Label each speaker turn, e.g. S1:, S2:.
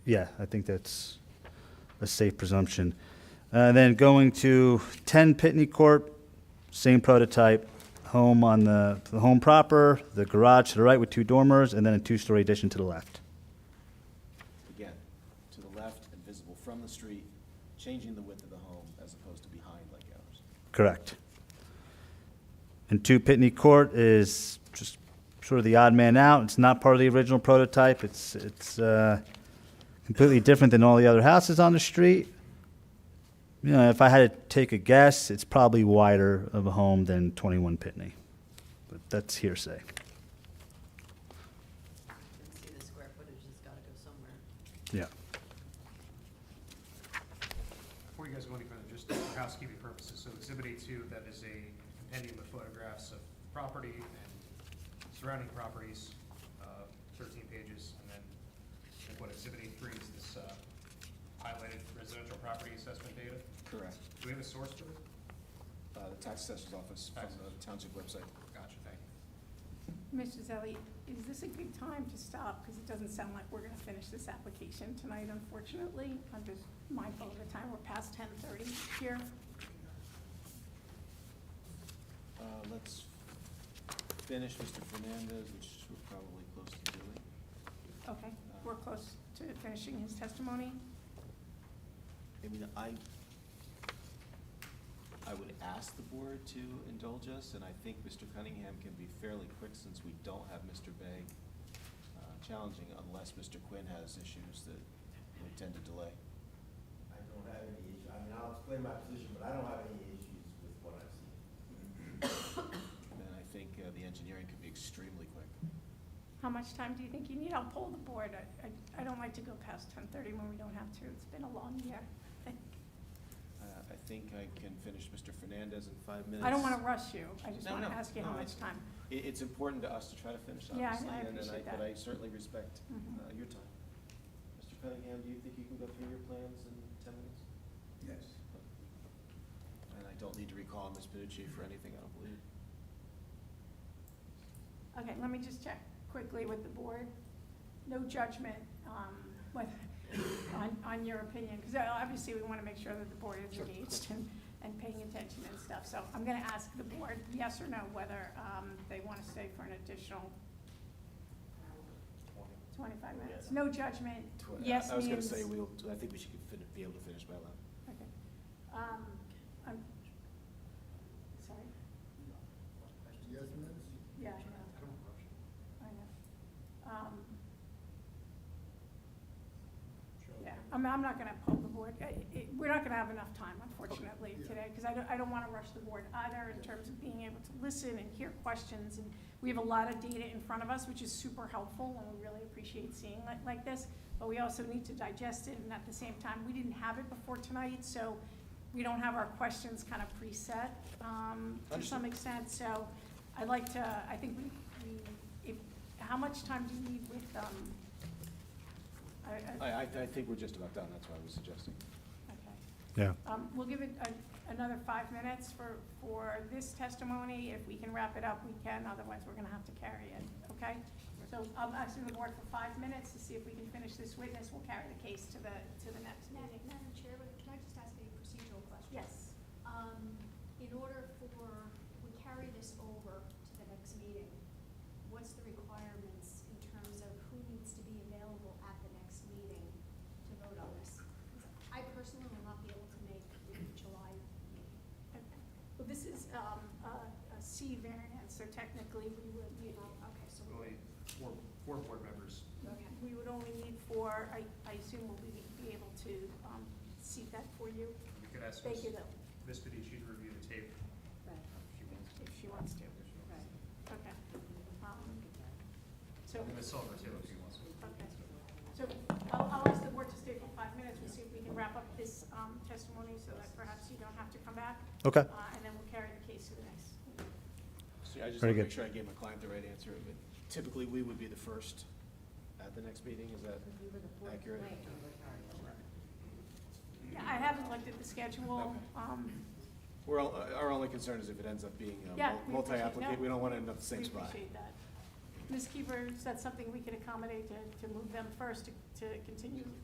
S1: Yeah, I think that's a safe presumption. Uh, then going to ten Pitney Court, same prototype, home on the, the home proper, the garage to the right with two dormers, and then a two-story addition to the left.
S2: Again, to the left and visible from the street, changing the width of the home as opposed to behind like ours.
S1: Correct. And two Pitney Court is just sort of the odd man out. It's not part of the original prototype. It's, it's uh, completely different than all the other houses on the street. You know, if I had to take a guess, it's probably wider of a home than 21 Pitney. But that's hearsay.
S3: See, the square footage has got to go somewhere.
S1: Yeah.
S4: Before you guys go any further, just for housekeeping purposes, so exhibit A two, that is a compendium of photographs of property and surrounding properties, uh, thirteen pages, and then I think what exhibit A three is this, uh, highlighted residential property assessment data.
S2: Correct.
S4: Do we have a source for this?
S2: Uh, the tax assessor's office from the township website.
S4: Gotcha, thank you.
S5: Mr. Zelli, is this a good time to stop? Because it doesn't sound like we're going to finish this application tonight, unfortunately. I'm just mindful of the time. We're past ten thirty here.
S2: Uh, let's finish Mr. Fernandez, which we're probably close to doing.
S5: Okay, we're close to finishing his testimony.
S2: I mean, I, I would ask the board to indulge us, and I think Mr. Cunningham can be fairly quick since we don't have Mr. Begg uh, challenging unless Mr. Quinn has issues that we tend to delay.
S6: I don't have any issue, I mean, I'll explain my position, but I don't have any issues with what I've seen.
S2: And I think uh, the engineering could be extremely quick.
S5: How much time do you think you need? I'll poll the board. I, I- I don't like to go past ten thirty when we don't have to. It's been a long year. I-
S2: Uh, I think I can finish Mr. Fernandez in five minutes.
S5: I don't want to rush you. I just
S2: No,
S5: want to
S2: no,
S5: ask you
S2: no,
S5: how
S2: I-
S5: much time.
S2: It, it's important to us to try to finish, obviously,
S5: Yeah, I- I
S2: and and
S5: appreciate
S2: But
S5: that.
S2: I certainly respect
S5: Mhm.
S2: uh, your time. Mr. Cunningham, do you think you can go through your plans in ten minutes?
S6: Yes.
S2: And I don't need to recall Ms. Panucci for anything, I don't believe.
S5: Okay, let me just check quickly with the board. No judgment um, with- on, on your opinion, because obviously we want to make sure that the board is engaged and, and paying attention and stuff. So I'm going to ask the board, yes or no, whether um, they want to stay for an additional 25 minutes. No judgment,
S2: Tw-
S5: yes means.
S2: I was gonna say, we'll, I think we should fin- be able to finish by eleven.
S5: Okay. Um, I'm, sorry,
S6: Yes, minutes?
S5: yeah, I know. I know. Um, Yeah, I'm, I'm not gonna poll the board, I- I- we're not gonna have enough time unfortunately
S6: yeah.
S5: today, because I don't, I don't wanna rush the board either in terms of being able to listen and hear questions, and we have a lot of data in front of us, which is super helpful, and we really appreciate seeing like, like this, but we also need to digest it, and at the same time, we didn't have it before tonight, so we don't have our questions kind of preset, um, to
S2: Understood.
S5: some extent, so I'd like to, I think we, we, if, how much time do you need with, um, I, I,
S2: I, I, I think we're just about done, that's why I was suggesting.
S5: okay.
S1: Yeah.
S5: Um, We'll give it a- another five minutes for, for this testimony. If we can wrap it up, we can, otherwise we're gonna have to carry it, okay? So I'm asking the board for five minutes to see if we can finish this witness. We'll carry the case to the, to the next
S7: Madam
S5: meeting.
S7: Madam Chair, but can I just ask a procedural question?
S5: Yes.
S7: Um, in order for, we carry this over to the next meeting, what's the requirements in terms of who needs to be available at the next meeting to vote on this? 'Cause I personally will not be able to make the July meeting.
S5: Well, this is um, a a C variance, so technically we would, oh,
S7: You know, okay, so we,
S4: Only four, four board members.
S5: we- we would only need four, I, I assume we'll be, be able to um, seat that for you.
S4: You could ask
S5: Thank
S4: Ms.
S5: you though,
S4: Ms. Panucci to review the tape if she wants.
S5: if she wants to. Okay. Um, So.
S4: And Ms. Silver too, if she wants.
S5: Okay. So I'll, I'll ask the board to stay for five minutes, we'll see if we can wrap up this um, testimony so that perhaps you don't have to come back.
S1: Okay.
S5: Uh, And then we'll carry the case to the next.
S2: So I just
S1: Very
S2: want to make
S1: good.
S2: sure I gave my client the right answer, but typically we would be the first at the next meeting, is that accurate?
S5: Yeah, I haven't looked at the schedule.
S2: Okay.
S5: um,
S2: We're, all- our only concern is if it ends up being uh, mul-
S5: Yeah, we appreciate-
S2: multi-applicant,
S5: no.
S2: we don't want to end up the same spot.
S5: We appreciate that. Ms. Keeper, is that something we can accommodate to, to move them first, to, to continue